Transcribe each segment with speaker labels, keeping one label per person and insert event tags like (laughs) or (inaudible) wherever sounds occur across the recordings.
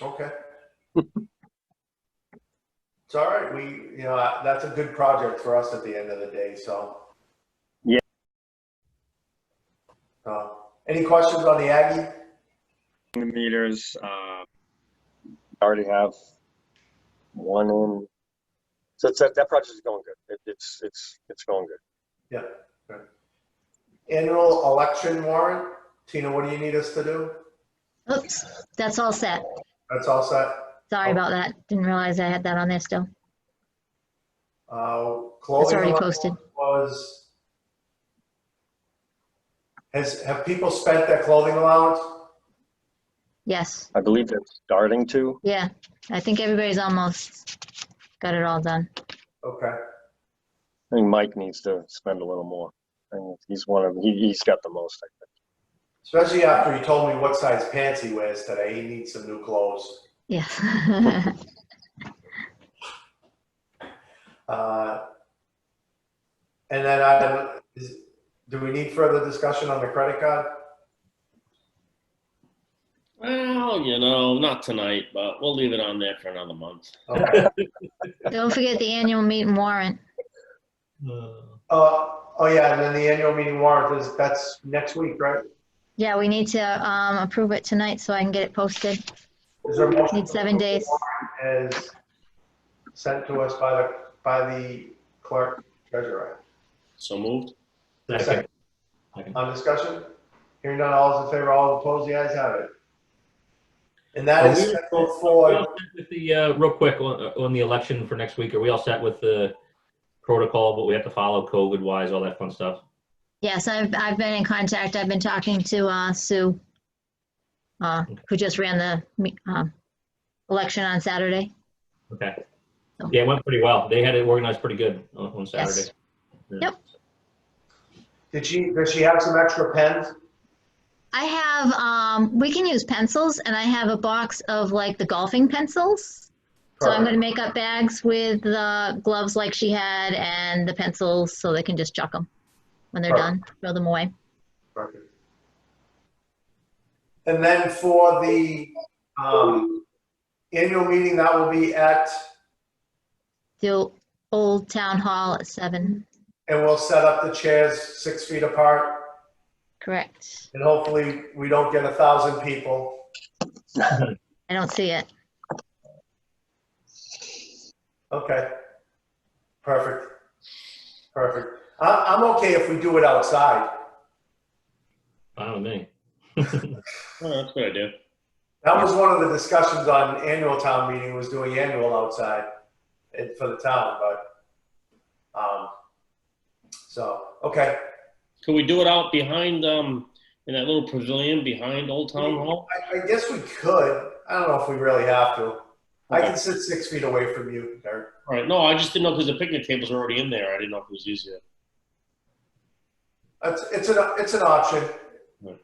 Speaker 1: Okay. It's all right. We, you know, that's a good project for us at the end of the day, so.
Speaker 2: Yeah.
Speaker 1: Uh, Any questions on the Aggie?
Speaker 2: The meters, uh, already have one in. So it's, that, that project is going good. It, it's, it's, it's going good.
Speaker 1: Annual election warrant? Tina, what do you need us to do?
Speaker 3: Oops, that's all set.
Speaker 1: That's all set.
Speaker 3: Sorry
Speaker 1: Oh.
Speaker 3: about that. Didn't realize I had that on there still.
Speaker 1: Uh,
Speaker 3: It's
Speaker 1: Clothing
Speaker 3: already
Speaker 1: allowance
Speaker 3: posted.
Speaker 1: was. Has, have people spent their clothing allowance?
Speaker 3: Yes,
Speaker 2: I believe they're starting to.
Speaker 3: yeah. I think everybody's almost got it all done.
Speaker 1: Okay,
Speaker 2: I think Mike needs to spend a little more. I think he's one of, he, he's got the most, I think.
Speaker 1: especially after he told me what size pants he wears today. He needs some new clothes.
Speaker 3: Yes.
Speaker 1: Uh, And then I, is, do we need further discussion on the credit card?
Speaker 4: Well, you know, not tonight, but we'll leave it on there for another month.
Speaker 5: (laughs)
Speaker 1: Okay.
Speaker 3: (laughs) Don't forget the annual meeting warrant.
Speaker 1: Uh, oh yeah, and then the annual meeting warrant is, that's next week, right?
Speaker 3: Yeah, we need to um, approve it tonight so I can get it posted.
Speaker 1: Is there a motion
Speaker 3: Need seven
Speaker 1: to approve
Speaker 3: days.
Speaker 1: the warrant As sent to us by the, by the clerk treasurer.
Speaker 4: So moved.
Speaker 1: Second.
Speaker 5: Second.
Speaker 1: On discussion? Hearing none, all is in favor, all opposed, the ayes have it. And that is scheduled
Speaker 5: Are we all
Speaker 1: for,
Speaker 5: set with The, uh, real quick, on, on the election for next week, are we all set with the protocol, what we have to follow COVID wise, all that fun stuff?
Speaker 3: Yes, I've, I've been in contact. I've been talking to uh, Sue, uh, who just ran the me- um, election on Saturday.
Speaker 5: Okay. Yeah, it went pretty well. They had it organized pretty good on, on Saturday.
Speaker 1: did she, does she have some extra pens?
Speaker 3: I have, um, we can use pencils, and I have a box of like the golfing pencils. So I'm going to make up bags with the gloves like she had and the pencils so they can just chuck them when they're done, throw them away.
Speaker 1: Perfect. And then for the um, annual meeting, that will be at,
Speaker 3: The ol- old town hall at seven,
Speaker 1: and we'll set up the chairs six feet apart,
Speaker 3: correct?
Speaker 1: and hopefully we don't get a thousand people.
Speaker 3: I don't see it.
Speaker 1: Okay. Perfect. Perfect. I'm, I'm okay if we do it outside.
Speaker 5: Fine with me.
Speaker 4: Oh, that's a good idea.
Speaker 1: That was one of the discussions on annual town meeting, was doing annual outside eh, for the town, but, um, so, okay.
Speaker 4: Could we do it out behind, um, in that little pavilion behind Old Town Hall?
Speaker 1: I, I guess we could. I don't know if we really have to. I
Speaker 4: Okay.
Speaker 1: can sit six feet away from you, Derek.
Speaker 4: All right. No, I just didn't know because the picnic tables were already in there. I didn't know if it was easier.
Speaker 1: It's, it's an, it's an option.
Speaker 4: Right.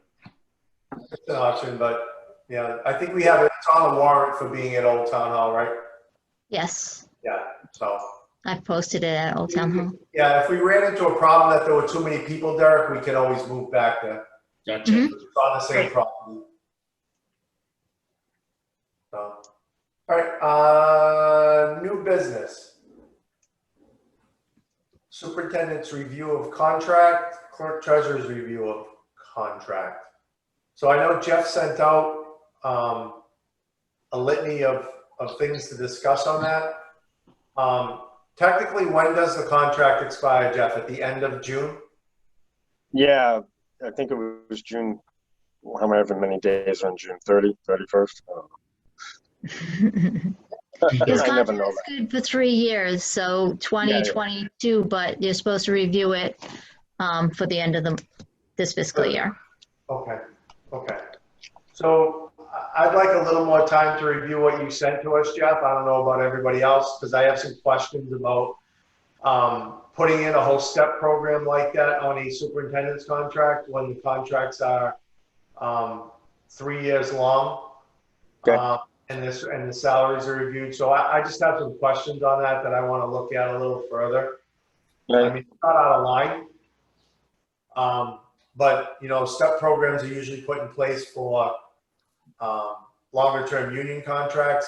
Speaker 1: It's an option, but, yeah, I think we have, it. it's on a warrant for being at Old Town Hall, right?
Speaker 3: Yes,
Speaker 1: Yeah, so.
Speaker 3: I've posted it at old town
Speaker 2: Mm-hmm.
Speaker 3: hall.
Speaker 1: Yeah, if we ran into a problem that there were too many people, Derek, we can always move back there.
Speaker 4: Gotcha.
Speaker 3: Mhm.
Speaker 1: It's on the same property. So, all right, uh, new business. Superintendent's review of contract, clerk treasurer's review of contract. So I know Jeff sent out, um, a litany of, of things to discuss on that. Um, technically, when does the contract expire, Jeff? At the end of June?
Speaker 2: Yeah, I think it was June, however many days on June 30, 31st. I don't (laughs) know.
Speaker 3: His
Speaker 2: I never
Speaker 3: contract
Speaker 2: know
Speaker 3: is good for three years, so 2022, but you're supposed to review it um, for the end of the, this fiscal year.
Speaker 1: Okay, okay. So I- I'd like a little more time to review what you sent to us, Jeff. I don't know about everybody else, because I have some questions about um, putting in a whole step program like that on a superintendent's contract when the contracts are um, three years long.
Speaker 2: Okay.
Speaker 1: Uh, And this, and the salaries are reviewed. So I, I just have some questions on that that I want to look at a little further. I
Speaker 2: that.
Speaker 1: mean, it's not out of line. Um, but, you know, step programs are usually put in place for, um, longer term union contracts